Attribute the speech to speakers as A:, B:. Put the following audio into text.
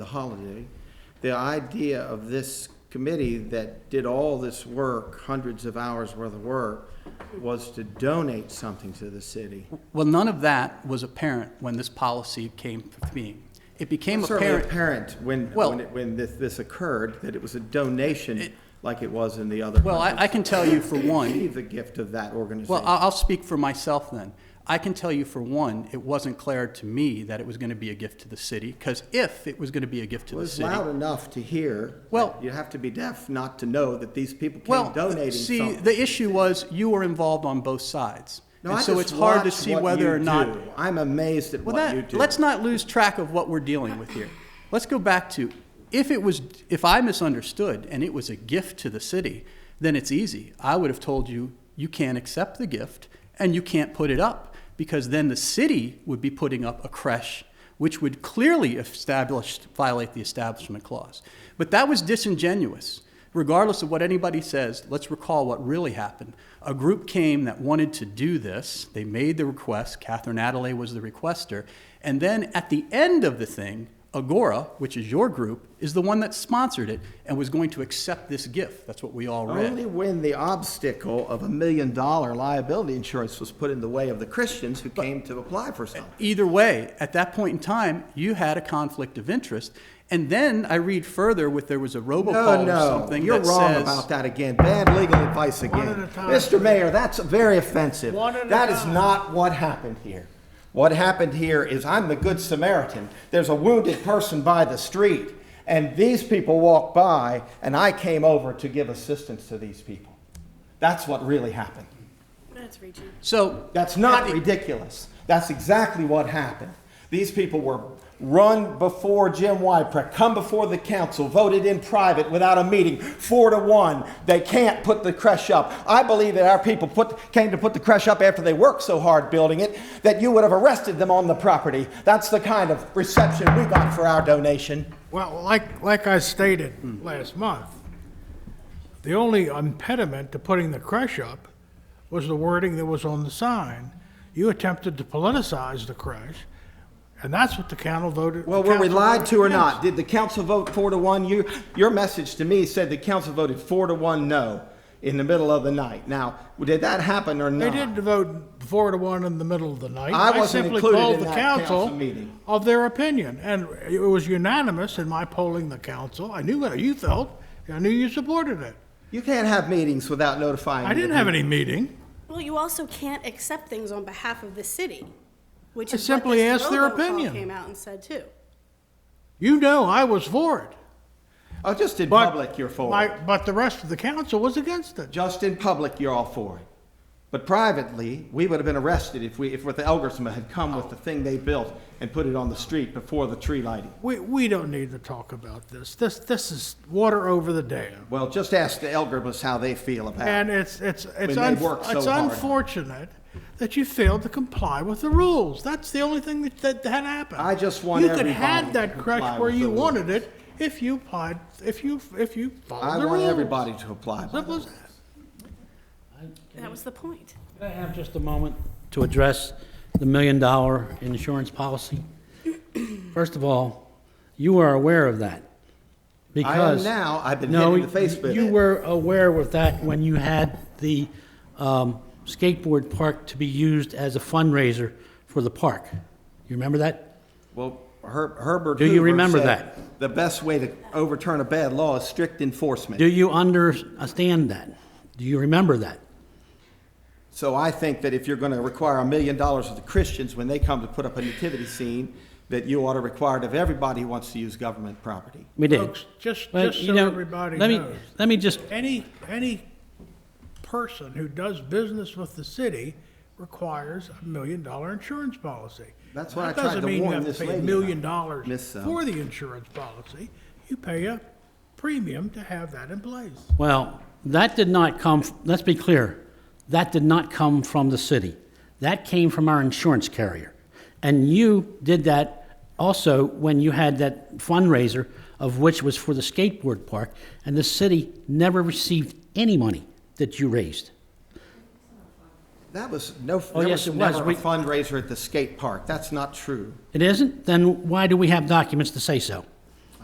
A: holiday, the idea of this committee that did all this work, hundreds of hours worth of work, was to donate something to the city.
B: Well, none of that was apparent when this policy came to being. It became
A: Certainly
B: apparent,
A: apparent when,
B: Well-
A: when, it- when this, this occurred, that it was a donation like it was in the other.
B: well, I, I can tell you for one,
A: Receive the gift of that organization.
B: well, I'll, I'll speak for myself then. I can tell you for one, it wasn't clear to me that it was gonna be a gift to the city, because if it was gonna be a gift to
A: It
B: the
A: was
B: city.
A: loud enough to hear.
B: Well-
A: You have to be deaf not to know that these people
B: Well,
A: came donating
B: see,
A: something.
B: the issue was you were involved on both sides.
A: No,
B: And
A: I
B: so
A: just
B: it's hard to
A: watch
B: see
A: what
B: whether
A: you
B: or not.
A: do. I'm amazed at
B: Well,
A: what you
B: that,
A: do.
B: let's not lose track of what we're dealing with here. Let's go back to, if it was, if I misunderstood and it was a gift to the city, then it's easy. I would have told you, you can't accept the gift and you can't put it up because then the city would be putting up a creche which would clearly establish, violate the establishment clause. But that was disingenuous. Regardless of what anybody says, let's recall what really happened. A group came that wanted to do this. They made the request. Catherine Adelaide was the requester. And then at the end of the thing, Agora, which is your group, is the one that sponsored it and was going to accept this gift. That's what we all read.
A: Only when the obstacle of a million dollar liability insurance was put in the way of the Christians who came to apply for something.
B: Either way, at that point in time, you had a conflict of interest. And then I read further with there was a
A: No,
B: robocall or
A: no,
B: something
A: you're
B: that
A: wrong
B: says,
A: about that again. Bad legal advice again.
C: at a time.
A: Mr. Mayor, that's very offensive.
C: One at a
A: That is
C: time.
A: not what happened here. What happened here is I'm the good Samaritan. There's a wounded person by the street, and these people walked by, and I came over to give assistance to these people. That's what really happened.
D: That's reaching.
B: So
A: That's not ridiculous. That's exactly what happened. These people were run before Jim Wyprek, come before the council, voted in private without a meeting, four to one. They can't put the creche up. I believe that our people put, came to put the creche up after they worked so hard building it that you would have arrested them on the property. That's the kind of reception we got for our donation.
C: Well, like, like I stated last month, the only impediment to putting the crush up was the wording that was on the sign. You attempted to politicize the crush, and that's what the council voted.
A: Well, were we
C: council
A: lied
C: voted
A: to or
C: against.
A: not? Did the council vote four to one? You, your message to me said the council voted four to one no in the middle of the night. Now, did that happen or
C: They
A: not?
C: did vote four to one in the middle of the night.
A: I wasn't
C: simply
A: included
C: polled
A: in
C: the
A: that council meeting.
C: Of their opinion, and it was unanimous in my polling the council. I knew how you felt, and I knew you supported it.
A: You can't have meetings without notifying.
C: I didn't
A: the
C: have any meeting.
D: Well, you also can't accept things on behalf of the city, which
C: I
D: is what
C: simply
D: this
C: asked their
D: robocall
C: opinion.
D: Came out and said too.
C: You know I was for it.
A: people. Oh, just in
C: But
A: public, you're for
C: my-
A: it.
C: But the rest of the council was against it.
A: Just in public, you're all for it. But privately, we would have been arrested if we, if the Elgersma had come with the thing they built and put it on the street before the tree lighting.
C: We, we don't need to talk about this. This, this is water over the dam.
A: Well, just ask the Elgersmas how they feel about it.
C: And it's, it's, it's,
A: they
C: un-
A: work so
C: it's
A: hard.
C: unfortunate that you failed to comply with the rules. That's the only thing that, that had happened.
A: I just want
C: You could
A: everybody
C: have
A: to
C: that
A: comply
C: crush where
A: with
C: you
A: the
C: wanted it if you applied, if you, if you followed
A: I
C: the rules.
A: want everybody to apply. by
C: Simple
A: the
C: as that.
D: That was the point.
E: Can I have just a moment to address the million-dollar insurance policy? First of all, you are aware of that. because-
A: now. I've been
E: No,
A: hit in the face with
E: You
A: it.
E: were aware of that when you had the um, skateboard park to be used as a fundraiser for the park. You remember that?
A: Well, Her- Herbert
E: Do you
A: Hoover
E: remember
A: said
E: that?
A: The best way to overturn a bad law is strict enforcement.
E: Do you understand that? Do you remember that?
A: So I think that if you're going to require a million dollars of the Christians when they come to put up a nativity scene, that you ought to require it of everybody who wants to use government property.
E: We did.
C: Folks, just,
E: Well,
C: just
E: you
C: so
E: know,
C: everybody
E: let me-
C: knows.
E: Let me just
C: Any, any person who does business with the city requires a million-dollar insurance policy.
A: That's why I
C: That
A: tried
C: doesn't
A: to
C: mean you
A: warn
C: have to
A: this
C: pay a
A: lady about
C: million
A: it, Miss uh,
C: dollars
A: Sell.
C: for the insurance policy. You pay a premium to have that in place.
E: Well, that did not come, let's be clear, that did not come from the city. That came from our insurance carrier. And you did that also when you had that fundraiser, of which was for the skateboard park, and the city never received any money that you raised.
A: That was no,
E: Oh,
A: there
E: yes,
A: was
E: it was.
A: never a
E: We-
A: fundraiser at the skate park. That's not true.
E: It isn't? Then why do we have documents to say so?